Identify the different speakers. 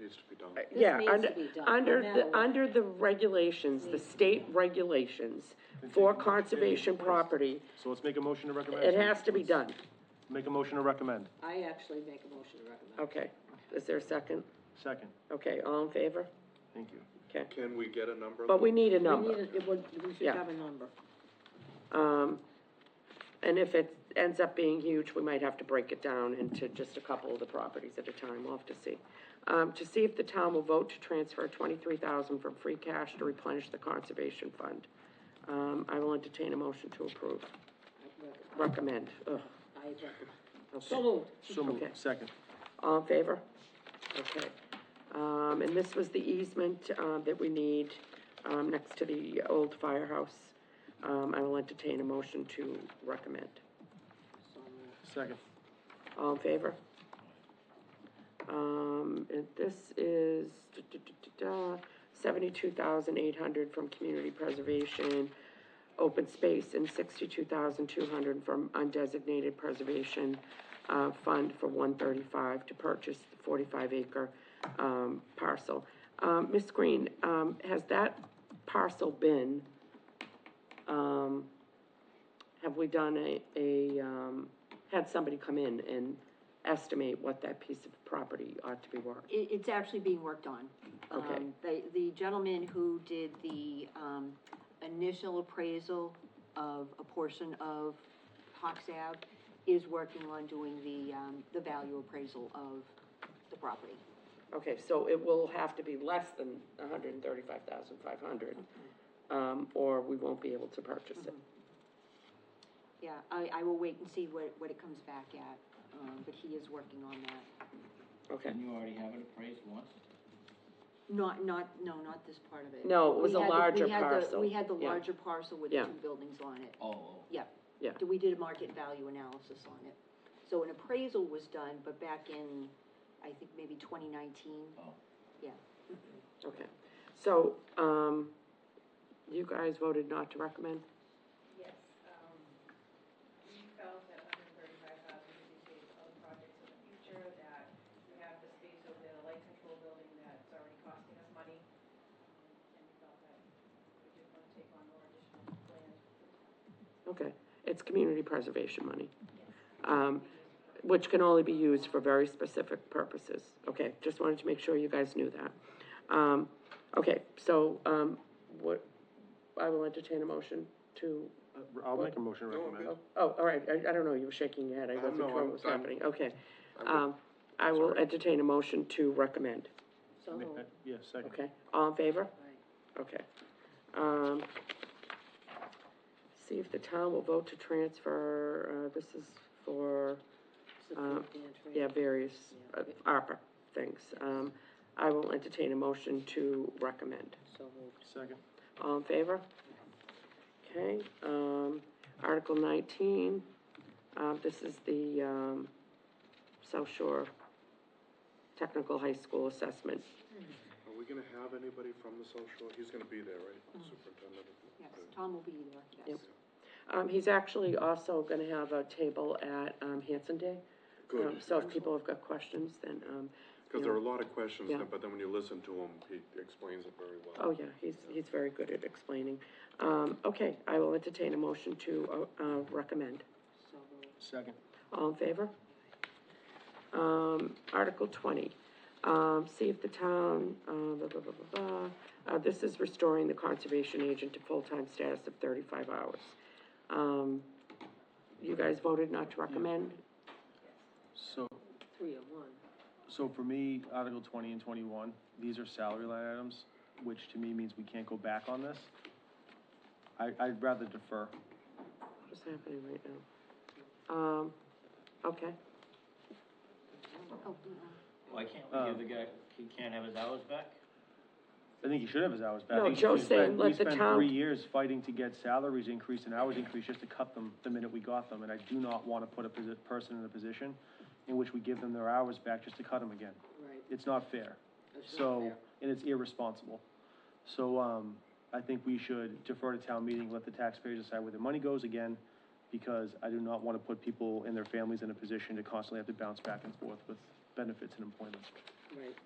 Speaker 1: needs to be done.
Speaker 2: Uh,
Speaker 3: This
Speaker 2: Yeah,
Speaker 3: needs
Speaker 2: under,
Speaker 3: to be done, no
Speaker 2: under,
Speaker 3: matter
Speaker 2: the
Speaker 3: what.
Speaker 2: under the regulations, the state regulations for conservation property,
Speaker 4: So let's make a motion to recommend.
Speaker 2: it has to be done.
Speaker 4: Make a motion to recommend.
Speaker 3: I actually make a motion to recommend.
Speaker 2: Okay, is there a second?
Speaker 4: Second.
Speaker 2: Okay, all in favor?
Speaker 4: Thank you.
Speaker 2: Okay,
Speaker 1: Can we get a number?
Speaker 2: but we need a
Speaker 3: We
Speaker 2: number.
Speaker 3: need, a- it would, we should
Speaker 2: Yeah.
Speaker 3: have a number.
Speaker 2: Um, and if it ends up being huge, we might have to break it down into just a couple of the properties at a time, we'll have to see. Um, to see if the town will vote to transfer twenty-three thousand from free cash to replenish the conservation fund. Um, I will entertain a motion to approve,
Speaker 3: I rec-
Speaker 2: recommend, ugh,
Speaker 3: I recommend.
Speaker 2: okay.
Speaker 3: So moved.
Speaker 4: So moved.
Speaker 2: Okay.
Speaker 4: Second.
Speaker 2: All in favor? Okay. Um, and this was the easement, uh, that we need, um, next to the old firehouse. Um, I will entertain a motion to recommend.
Speaker 3: So moved.
Speaker 4: Second.
Speaker 2: All in favor? Um, and this is seventy-two thousand eight hundred from community preservation, open space, and sixty-two thousand two hundred from undesignated preservation, uh, fund for one thirty-five to purchase the forty-five acre, um, parcel. Um, Ms. Green, um, has that parcel been, um, have we done a, a, um, had somebody come in and estimate what that piece of property ought to be worth?
Speaker 5: It, it's actually being worked on.
Speaker 2: Okay.
Speaker 5: Um, The, the gentleman who did the, um, initial appraisal of a portion of Hawks Ave is working on doing the, um, the value appraisal of the property.
Speaker 2: Okay, so it will have to be less than a hundred and thirty-five thousand five hundred, um, or we won't be able to purchase it.
Speaker 5: Yeah, I, I will wait and see what, what it comes back at, um, but he is working on that.
Speaker 2: Okay.
Speaker 6: Didn't you already have it appraised once?
Speaker 5: Not, not, no, not this part of it.
Speaker 2: No, it was a
Speaker 5: We had the- we
Speaker 2: larger
Speaker 5: had the-
Speaker 2: parcel.
Speaker 5: We had the
Speaker 2: Yeah.
Speaker 5: larger parcel with the
Speaker 2: Yeah.
Speaker 5: two buildings on it.
Speaker 6: Oh, oh.
Speaker 5: Yep.
Speaker 2: Yeah.
Speaker 5: We did a market value analysis on it. So an appraisal was done, but back in, I think maybe twenty nineteen.
Speaker 6: Oh.
Speaker 5: Yeah.
Speaker 2: Okay, so, um, you guys voted not to recommend?
Speaker 7: Yes, um, we felt that hundred and thirty-five thousand would be saved for other projects in the future, that we have the space over there, the light control building that's already costing us money. Um, And we felt that we didn't want to take on more additional land.
Speaker 2: Okay, it's community preservation money. Um, which can only be used for very specific purposes. Okay, just wanted to make sure you guys knew that. Um, okay, so, um, what, I will entertain a motion to,
Speaker 4: Uh, I'll make a motion to
Speaker 1: No,
Speaker 4: recommend.
Speaker 2: oh, oh, all right, I, I don't know, you were shaking your head, I wasn't
Speaker 1: no,
Speaker 2: sure
Speaker 1: I'm-
Speaker 2: what was
Speaker 1: I'm-
Speaker 2: happening, okay.
Speaker 1: I'm good.
Speaker 2: Um, I will entertain a motion to recommend,
Speaker 3: So
Speaker 4: Ma-
Speaker 3: moved.
Speaker 4: uh, Yeah, second.
Speaker 2: okay? All in favor?
Speaker 3: Right.
Speaker 2: Okay. Um, see if the town will vote to transfer, uh, this is for, Um,
Speaker 3: Substantial.
Speaker 2: yeah, various, uh, ARPA things. Um, I will entertain a motion to recommend.
Speaker 3: So moved.
Speaker 4: Second.
Speaker 2: All in favor? Okay, um, Article nineteen, uh, this is the, um, South Shore Technical High School Assessment.
Speaker 1: Are we gonna have anybody from the South Shore? He's gonna be there, right? Superintendent?
Speaker 5: Yes, Tom will be there, yes.
Speaker 2: Um, he's actually also gonna have a table at, um, Hanson Day. Um,
Speaker 1: Good,
Speaker 2: So if people have got questions, then, um,
Speaker 1: because there are a lot of questions,
Speaker 2: Yeah.
Speaker 1: but then when you listen to him, he explains it very well.
Speaker 2: oh yeah, he's, he's very good at explaining. Um, okay, I will entertain a motion to, uh, uh, recommend.
Speaker 3: So moved.
Speaker 4: Second.
Speaker 2: All in favor? Um, Article twenty, um, see if the town, uh, blah, blah, blah, blah, blah. Uh, this is restoring the conservation agent to full-time status of thirty-five hours. Um, you guys voted not to recommend?
Speaker 4: So,
Speaker 3: Three
Speaker 5: oh
Speaker 3: of one.
Speaker 4: so for me, Article twenty and twenty-one, these are salary line items, which to me means we can't go back on this. I, I'd rather defer.
Speaker 2: What's happening right now? Um, okay,
Speaker 5: Oh, yeah.
Speaker 6: Why can't we give the guy, he can't have his hours back?
Speaker 4: I think he should have his hours back.
Speaker 2: No,
Speaker 4: I think
Speaker 2: Joe's
Speaker 4: we spent-
Speaker 2: saying let the
Speaker 4: We
Speaker 2: town-
Speaker 4: spent three years fighting to get salaries increased and hours increased just to cut them the minute we got them, and I do not want to put a posi- person in a position in which we give them their hours back just to cut them again.
Speaker 3: Right.
Speaker 4: It's not fair.
Speaker 3: That's not
Speaker 4: So,
Speaker 3: fair.
Speaker 4: and it's irresponsible. So, um, I think we should defer to town meeting, let the taxpayers decide where the money goes again, because I do not want to put people and their families in a position to constantly have to bounce back and forth with benefits and employment.
Speaker 3: Right.